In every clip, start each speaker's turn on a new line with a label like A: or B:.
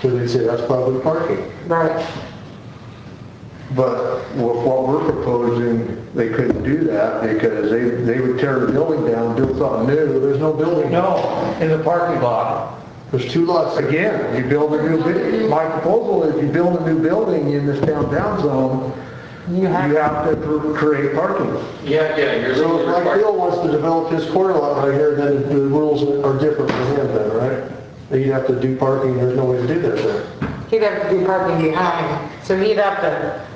A: Because they say that's public parking.
B: Right,
A: But with what we're proposing, they couldn't do that because they, they would tear the building down, build something new. There's no building.
C: No, in the parking lot.
A: There's two lots. Again, you build a new, bu- my proposal is you build a new building in this downtown zone, you have to pr- create parking.
D: Yeah, yeah, you're.
A: So if my Bill wants to develop his corner lot right here, then the rules are different for him then, right? He'd have to do parking, there's no way to do that there.
B: he'd have to do parking behind, so he'd have to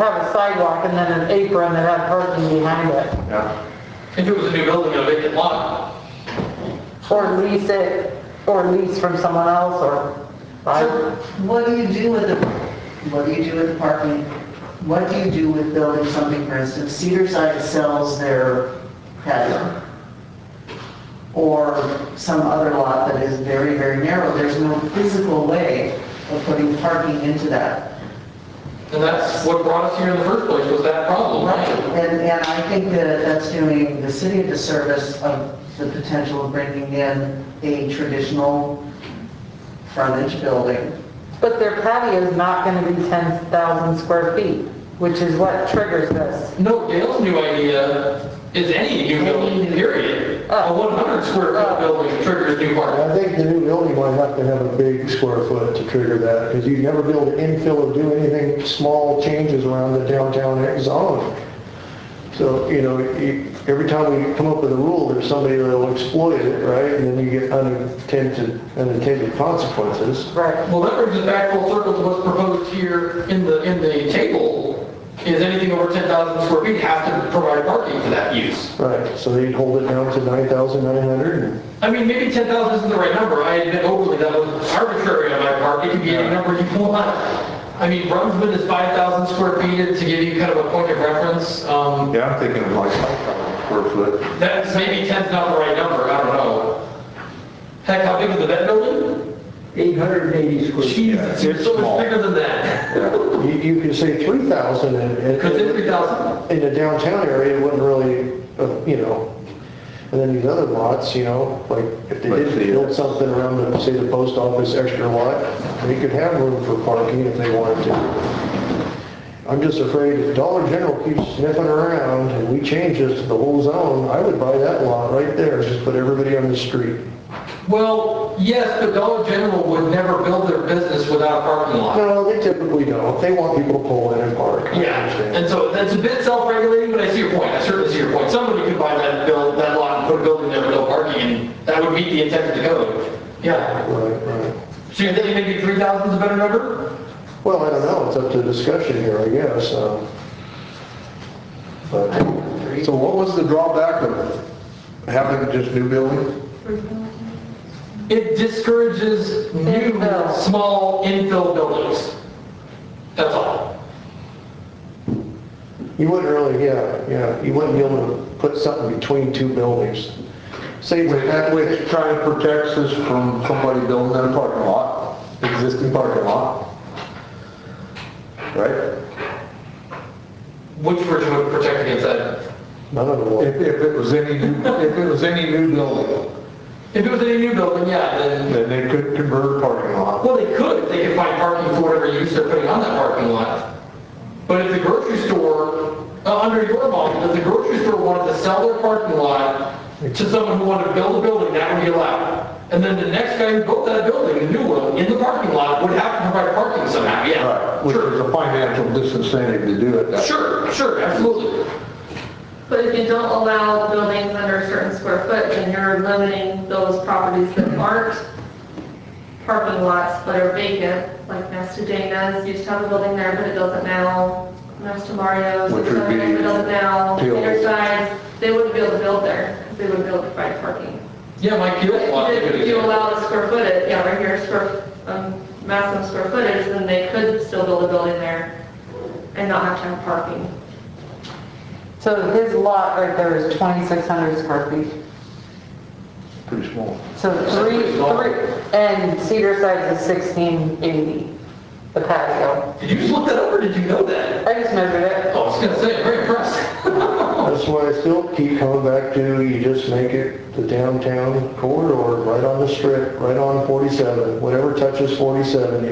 B: have a sidewalk and then an apron that had parking behind it,
A: Yeah.
D: If it was a new building on a vacant lot,
B: or lease it, or lease from someone else, or,
E: So
B: I-
E: what do you do with the, what do you do with parking? What do you do with building something, for instance, Cedarside sells their patio? Or some other lot that is very, very narrow, there's no physical way of putting parking into that.
D: and that's what brought us here in the first place, was that problem, right?
E: And, and I think that that's doing the city a disservice of the potential of bringing in a traditional frontage building.
B: but their patio is not gonna be 10,000 square feet, which is what triggers this.
D: No, Dale's new idea is any new Ah. building, period. A 100 square foot building triggers new parking.
A: I think the new building might have to have a big square foot to trigger that, because you'd never be able to infill or do anything, small changes around the downtown zone. So, you know, you- every time we come up with a rule, there's somebody that'll exploit it, right? And then you get unintended, unintended consequences.
B: Right,
D: Well, that brings us back full circle to what's proposed here in the, in the table, is anything over 10,000 square feet has to provide parking for that use.
A: Right, so they'd hold it down to 9,900 and
D: I mean, maybe 10,000 isn't the right number, I admit overly, that was arbitrary on my part, it could be any number you want. I mean, Brunswick is 5,000 square feet, to give you kind of a point of reference, um,
F: Yeah, I'm thinking of like square foot.
D: that's maybe 10's not the right number, I don't know. Heck, how big is the vet building?
C: 880 square.
D: Jesus, it's so much bigger than that,
A: You, you could say 3,000 and,
D: because it's
A: and
D: 3,000.
A: in the downtown area, it wouldn't really, uh, you know, and then these other lots, you know, like if they
F: But
A: did
F: the-
A: build something around, the say, the post office extra lot, they could have room for parking if they wanted to. I'm just afraid if Dollar General keeps sniffing around and we change this to the whole zone, I would buy that lot right there, just put everybody on the street.
D: Well, yes, but Dollar General would never build their business without a parking lot.
A: No, they typically don't, they want people to pull in and park. I
D: Yeah,
A: understand.
D: and so that's a bit self-regulating, but I see your point, I certainly see your point. Somebody could buy that build, that lot and put a building there with no parking, and that would meet the intent of the code. Yeah,
A: Right, right.
D: so you're thinking maybe 3,000 is a better number?
A: Well, I don't know, it's up to discussion here, I guess, um, but,
F: So what was the drawback of having just new building?
D: It discourages new,
B: Infill.
D: small infill buildings. That's all.
A: you wouldn't really, yeah, yeah, you wouldn't be able to put something between two buildings. Say,
F: Which,
A: that
F: which kind of protects us from somebody building in a parking lot, existing parking lot. Right?
D: Which version would protect against that?
A: none of them
F: If,
A: would.
F: if it was any, new- if it was any new building,
D: If it was any new building, yeah, then,
F: then they could convert a parking lot.
D: well, they could, they could find parking for whatever use they're putting on that parking lot. But if the grocery store, uh, under your model, if the grocery store wanted to sell their parking lot to someone who wanted to build a building, that would be allowed. And then the next guy who built that building, the new one, in the parking lot, would have to provide parking somehow, yeah.
F: Right, which is
D: Sure,
F: a financial disincentive to do it that way.
D: sure, sure, absolutely.
G: But if you don't allow buildings under a certain square foot, then you're limiting those properties that aren't parking lots but are vacant, like Mastodana's, used to have a building there, but it doesn't now, Master Mario's,
F: Which would be
G: it doesn't now,
F: till-
G: Intersides, they wouldn't be able to build there, 'cause they wouldn't be able to provide parking.
D: Yeah, my kiosk lot.
G: If you- if you allow the square footage, yeah, right here, square, um, maximum square footage, then they could still build a building there and not have to have parking.
B: so his lot right there is 2,600 square feet.
F: Pretty small.
B: So three, three, and Cedar Sides is sixteen eighty, the patio.
D: Did you just look that up or did you know that?
B: I just measured it.
D: Oh, I was gonna say, very impressed.
A: That's that's why I still keep coming back to, you just make it the downtown corridor, right on the strip, right on 47, whatever touches 47,